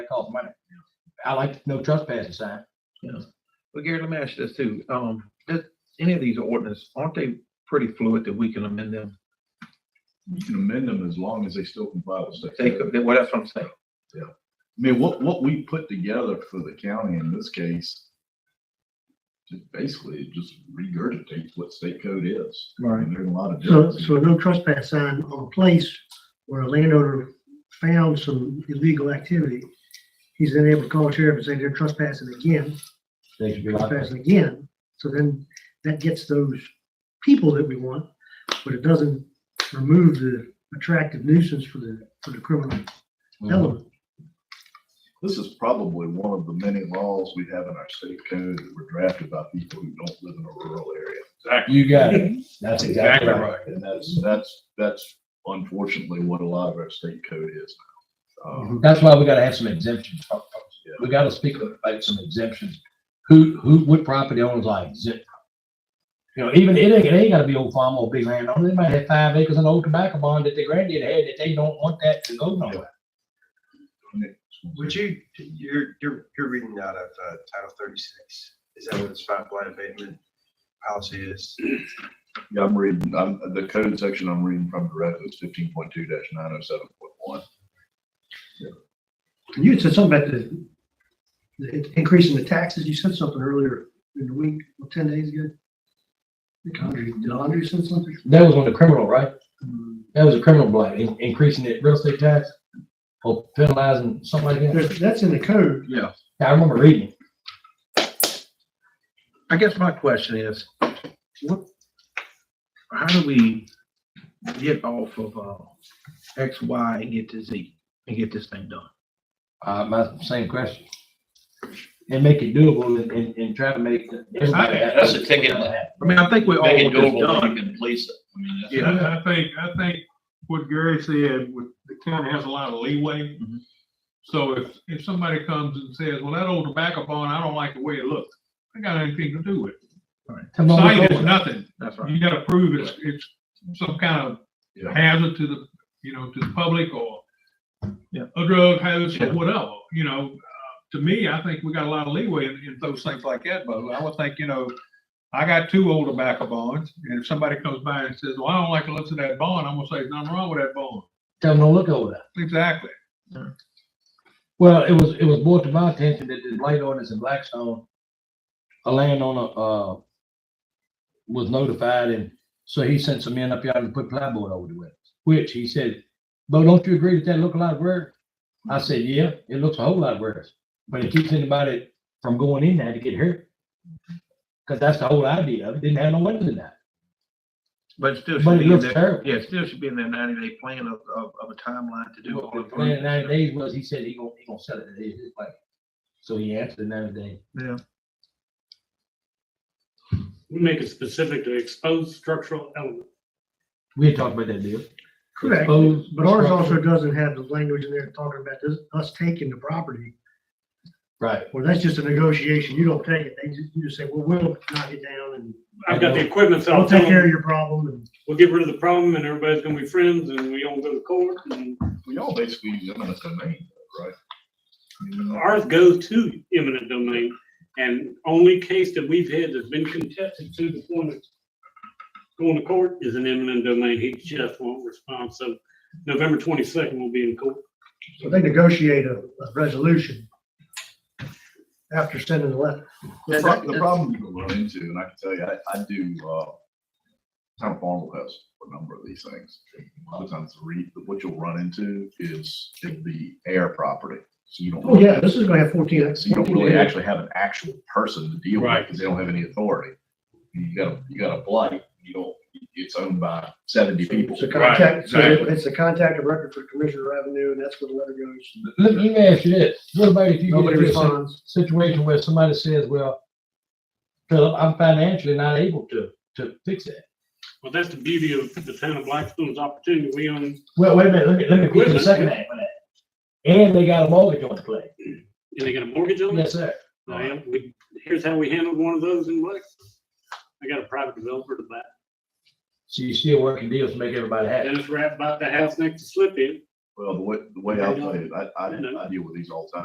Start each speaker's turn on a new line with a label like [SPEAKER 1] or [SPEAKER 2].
[SPEAKER 1] It costs money. I like no trespassing sign.
[SPEAKER 2] Well, Gary, let me ask you this too. Um, does any of these ordinance, aren't they pretty fluid that we can amend them?
[SPEAKER 3] You can amend them as long as they still comply with state.
[SPEAKER 2] They
[SPEAKER 3] code.
[SPEAKER 2] could, well, that's what I'm saying.
[SPEAKER 3] I mean, what, what we put together for the county in this case, just basically just regurgitates what state code is. I
[SPEAKER 2] Right.
[SPEAKER 3] mean, there's a lot of.
[SPEAKER 4] So,
[SPEAKER 3] differences.
[SPEAKER 4] so no trespass sign on a place where a landowner found some illegal activity. He's then able to call sheriff and say they're trespassing again,
[SPEAKER 1] They should be like that.
[SPEAKER 4] trespassing again. So then that gets those people that we want, but it doesn't remove the attractive nuisance for the, for the criminal
[SPEAKER 1] Mhm.
[SPEAKER 4] element.
[SPEAKER 3] This is probably one of the many laws we have in our state code that were drafted by people who don't live in a rural area.
[SPEAKER 1] You got it. That's exactly right.
[SPEAKER 3] And that's, that's, that's unfortunately what a lot of our state code is now. Um,
[SPEAKER 1] That's why we gotta have some exemptions. We gotta speak about some exemptions. Who, who, what property owners like exempt? You know, even, it ain't, it ain't gotta be old farm or big landowner. They might have five acres and old tobacco bond that their granddad had that they don't want that to go nowhere.
[SPEAKER 4] Mm-hmm.
[SPEAKER 5] Would you, you're, you're, you're reading out of uh, Title thirty-six. Is that what the spotlight abatement policy is?
[SPEAKER 3] Yeah, I'm reading, I'm, the code section I'm reading from directly is fifteen point two nine oh seven point one.
[SPEAKER 4] And you had said something about the, the increasing the taxes. You said something earlier in the week, or ten days ago. I think Andre, did Andre say something?
[SPEAKER 1] That was on the criminal, right? That was a criminal blight, in- increasing the real estate tax or penalizing something like that.
[SPEAKER 4] There's- That's in the code.
[SPEAKER 2] Yeah.
[SPEAKER 1] I remember reading. it.
[SPEAKER 2] I guess my question is, what, how do we get off of, uh, X, Y and get to Z and get this thing done?
[SPEAKER 1] Uh, my same question. And make it doable and, and, and try to make. everybody happy.
[SPEAKER 6] That's a ticket.
[SPEAKER 2] I mean, I think we all
[SPEAKER 6] Make it
[SPEAKER 2] want this
[SPEAKER 6] doable,
[SPEAKER 2] done.
[SPEAKER 6] you can police it. I mean, that's.
[SPEAKER 2] Yeah.
[SPEAKER 7] I I think, I think what Gary said, with- the county has a lot of leeway.
[SPEAKER 2] Mhm.
[SPEAKER 7] So if, if somebody comes and says, well, that old tobacco bond, I don't like the way it looks, I got anything to do with it.
[SPEAKER 1] Come on, we're
[SPEAKER 7] Sign is
[SPEAKER 1] going.
[SPEAKER 7] nothing.
[SPEAKER 2] That's right.
[SPEAKER 7] You gotta prove it's, it's some kind
[SPEAKER 3] Yeah.
[SPEAKER 7] of hazard to the, you know, to the public or
[SPEAKER 2] Yeah.
[SPEAKER 7] a drug hazard
[SPEAKER 2] Yeah.
[SPEAKER 7] or whatever, you know. Uh, To me, I think we got a lot of leeway in, in those things like that, but I would think, you know, I got two old tobacco bonds, and if somebody comes by and says, well, I don't like the looks of that bond, I'm gonna say, "There's nothing wrong with that bond.
[SPEAKER 1] Tell them to look over that.
[SPEAKER 7] Exactly.
[SPEAKER 1] Well, it was, it was brought to my attention that the blight ordinance in Blackstone, a landowner, uh, was notified and so he sent some men up here and put plywood over the windows, which he said, Bo, don't you agree that that look a lot worse? I said, yeah, it looks a whole lot worse, but it keeps anybody from going in there to get hurt. Cause that's the whole idea of it. Didn't have no windows in that.
[SPEAKER 2] But it still
[SPEAKER 1] But
[SPEAKER 2] should
[SPEAKER 1] it
[SPEAKER 2] be in
[SPEAKER 1] looks
[SPEAKER 2] there,
[SPEAKER 1] terrible.
[SPEAKER 2] yeah, it still should be in their ninety day plan of, of, of a timeline to do all
[SPEAKER 1] The
[SPEAKER 2] of
[SPEAKER 1] plan in ninety
[SPEAKER 2] it.
[SPEAKER 1] days was, he said he gonna, he gonna sell it today, his way. So he answered in ninety days.
[SPEAKER 2] Yeah.
[SPEAKER 8] We make it specific to expose structural element.
[SPEAKER 1] We had talked about that deal.
[SPEAKER 4] Correct,
[SPEAKER 1] Exposed
[SPEAKER 4] but ours also
[SPEAKER 1] structure.
[SPEAKER 4] doesn't have the language in there talking about this, us taking the property,
[SPEAKER 1] Right.
[SPEAKER 4] Well, that's just a negotiation, you don't take it, they just, you just say, well, we'll knock it down and
[SPEAKER 8] I've got the equipment, so I'll
[SPEAKER 4] we'll
[SPEAKER 8] tell
[SPEAKER 4] take care of
[SPEAKER 8] them,
[SPEAKER 4] your problem and.
[SPEAKER 8] we'll get rid of the problem and everybody's gonna be friends and we don't go to court and
[SPEAKER 3] We all basically use eminent domain, right? I mean,
[SPEAKER 8] ours goes to eminent domain. And only case that we've had that's been contested to the point of going to court is an eminent domain. He just won't respond. So November twenty-second will be in court.
[SPEAKER 4] So they negotiate a, a resolution after sending the letter.
[SPEAKER 3] The pro- the problem you run into, and I can tell you, I, I do, uh, town farm has a number of these things. A lot of times, the re, what you'll run into is it'll be air property, so you don't.
[SPEAKER 4] Oh, yeah, this is gonna have fourteen.
[SPEAKER 3] So you don't really
[SPEAKER 4] 14
[SPEAKER 3] actually have an actual person to deal with
[SPEAKER 8] Right.
[SPEAKER 3] because they don't have any authority. You got, a you got a blight, you don't, it's owned by seventy people.
[SPEAKER 4] It's a contact, so
[SPEAKER 3] exactly.
[SPEAKER 4] it's a contact of record for Commissioner Revenue, and that's where the letter goes.
[SPEAKER 1] Let, let me ask you this, what about if you get
[SPEAKER 4] Nobody
[SPEAKER 1] into a si-
[SPEAKER 4] responds.
[SPEAKER 1] situation where somebody says, well, Philip, I'm financially not able to, to fix that.
[SPEAKER 8] Well, that's the beauty of the town of Blackstone's opportunity. We own,
[SPEAKER 1] Well, wait a minute, let me, let me quit the second half of that. And they got a mortgage on the play.
[SPEAKER 8] and they got a mortgage on it.
[SPEAKER 1] Yes, sir.
[SPEAKER 8] I am, we, here's how we handled one of those in Blackstone. I got a private developer to buy.
[SPEAKER 1] So you're still working deals to make everybody happy.
[SPEAKER 8] Dennis Rapp bought the house next to Slip In.
[SPEAKER 3] Well, the way, the way I play it, I, I, I deal with these all the time.